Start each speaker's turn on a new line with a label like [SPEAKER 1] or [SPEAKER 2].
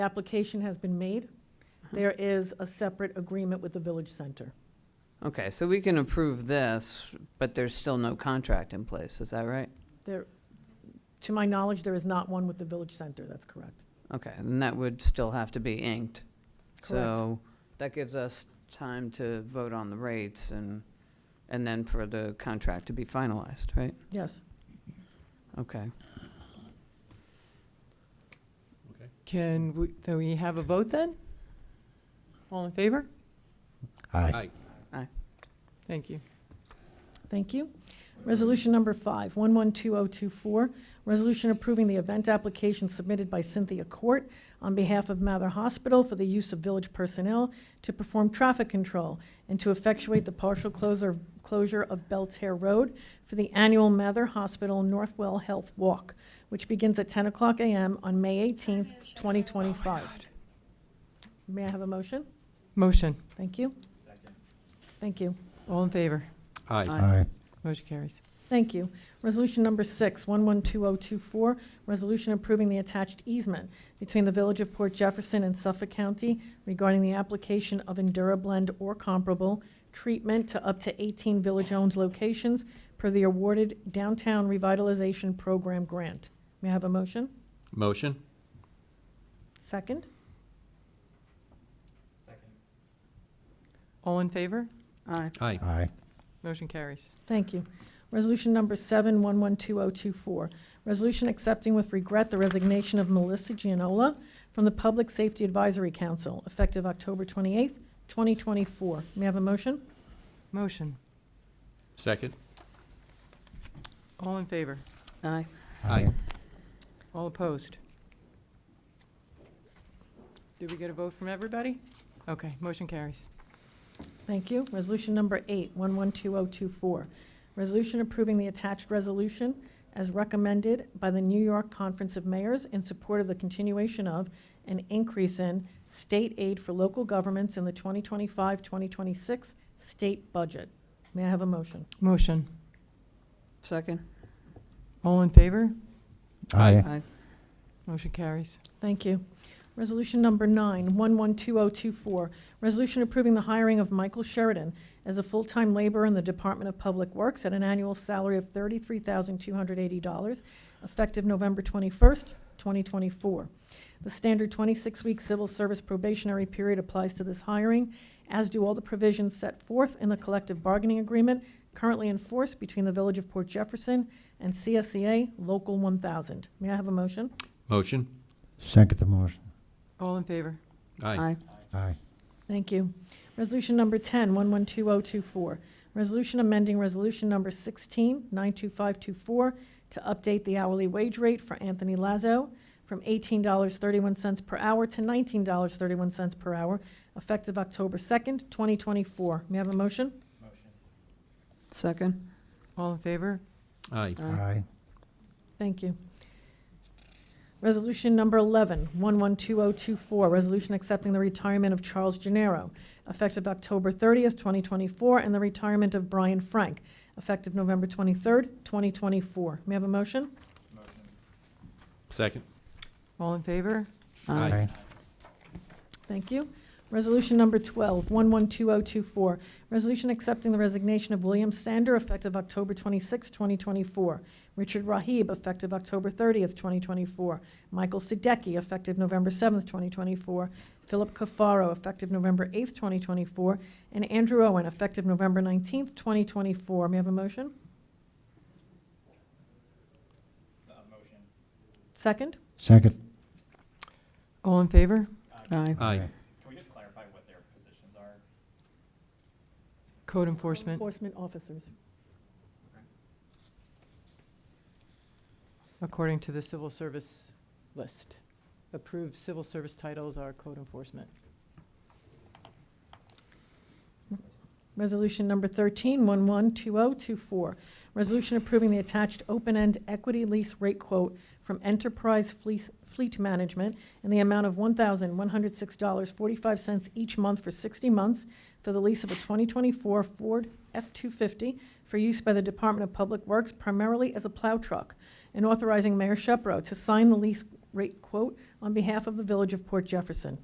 [SPEAKER 1] The application has been made. There is a separate agreement with the Village Center.
[SPEAKER 2] Okay, so we can approve this, but there's still no contract in place, is that right?
[SPEAKER 1] There, to my knowledge, there is not one with the Village Center, that's correct.
[SPEAKER 2] Okay, and that would still have to be inked. So that gives us time to vote on the rates and, and then for the contract to be finalized, right?
[SPEAKER 1] Yes,
[SPEAKER 2] Okay.
[SPEAKER 3] Can we, do we have a vote then? All in favor?
[SPEAKER 4] Aye.
[SPEAKER 3] Thank you.
[SPEAKER 1] thank you. Resolution number five, 112024, resolution approving the event application submitted by Cynthia Court on behalf of Mather Hospital for the use of village personnel to perform traffic control and to effectuate the partial closure, closure of Belter Road for the annual Mather Hospital Northwell Health Walk, which begins at 10 o'clock a.m. on May 18th, 2025. May I have a motion?
[SPEAKER 3] Motion.
[SPEAKER 1] Thank you. Second. Thank you.
[SPEAKER 3] All in favor?
[SPEAKER 4] Aye.
[SPEAKER 2] Aye.
[SPEAKER 3] Motion carries.
[SPEAKER 1] Thank you. Resolution number six, 112024, resolution approving the attached easement between the Village of Port Jefferson and Suffolk County regarding the application of EnduraBlend or comparable treatment to up to 18 village-owned locations per the awarded Downtown Revitalization Program grant. May I have a motion?
[SPEAKER 4] Motion?
[SPEAKER 1] Second?
[SPEAKER 3] All in favor?
[SPEAKER 2] Aye.
[SPEAKER 4] Aye.
[SPEAKER 5] Aye.
[SPEAKER 3] Motion carries.
[SPEAKER 1] Thank you. Resolution number seven, one one two oh two four. Resolution accepting with regret the resignation of Melissa Gianola from the Public Safety Advisory Council, effective October twenty-eighth, twenty twenty-four. May I have a motion?
[SPEAKER 3] Motion.
[SPEAKER 4] Second?
[SPEAKER 3] All in favor?
[SPEAKER 2] Aye.
[SPEAKER 4] Aye.
[SPEAKER 3] All opposed? Did we get a vote from everybody? Okay, motion carries.
[SPEAKER 1] Thank you. Resolution number eight, one one two oh two four. Resolution approving the attached resolution as recommended by the New York Conference of Mayors in support of the continuation of an increase in state aid for local governments in the 2025-2026 state budget. May I have a motion?
[SPEAKER 3] Motion.
[SPEAKER 2] Second?
[SPEAKER 3] All in favor?
[SPEAKER 4] Aye.
[SPEAKER 2] Aye.
[SPEAKER 3] Motion carries.
[SPEAKER 1] Thank you. Resolution number nine, 112024, resolution approving the hiring of Michael Sheridan as a full-time laborer in the Department of Public Works at an annual salary of $33,280, effective November 21st, 2024. The standard 26-week civil service probationary period applies to this hiring, as do all the provisions set forth in the collective bargaining agreement currently in force between the Village of Port Jefferson and CSEA Local 1000. May I have a motion?
[SPEAKER 4] Motion?
[SPEAKER 5] Second the motion.
[SPEAKER 3] All in favor?
[SPEAKER 4] Aye.
[SPEAKER 5] Aye.
[SPEAKER 1] Thank you. Resolution number 10, 112024, resolution amending resolution number 16, 92524, to update the hourly wage rate for Anthony Lazo from $18.31 per hour to $19.31 per hour, effective October 2nd, 2024. May I have a motion?
[SPEAKER 2] Second?
[SPEAKER 3] All in favor?
[SPEAKER 4] Aye.
[SPEAKER 5] Aye.
[SPEAKER 1] Thank you. Resolution number 11, 112024, resolution accepting the retirement of Charles Gennaro, effective October 30th, 2024, and the retirement of Brian Frank, effective November 23rd, 2024. May I have a motion?
[SPEAKER 4] Second?
[SPEAKER 3] All in favor?
[SPEAKER 4] Aye.
[SPEAKER 1] Thank you. Resolution number 12, 112024, resolution accepting the resignation of William Sander effective October 26, 2024, Richard Rahib effective October 30th, 2024, Michael Sidecki effective November 7th, 2024, Philip Cafaro effective November 8th, 2024, and Andrew Owen effective November 19th, 2024. May I have a motion? Second?
[SPEAKER 5] Second.
[SPEAKER 3] All in favor?
[SPEAKER 2] Aye.
[SPEAKER 4] Aye.
[SPEAKER 3] Code enforcement.
[SPEAKER 1] Enforcement officers.
[SPEAKER 3] According to the civil service list, approved civil service titles are code enforcement.
[SPEAKER 1] Resolution number 13, 112024, resolution approving the attached open-end equity lease rate quote from Enterprise Fleece- Fleet Management in the amount of $1,106.45 each month for 60 months for the lease of a 2024 Ford F-250 for use by the Department of Public Works primarily as a plow truck, and authorizing Mayor Shepro to sign the lease rate quote on behalf of the Village of Port Jefferson.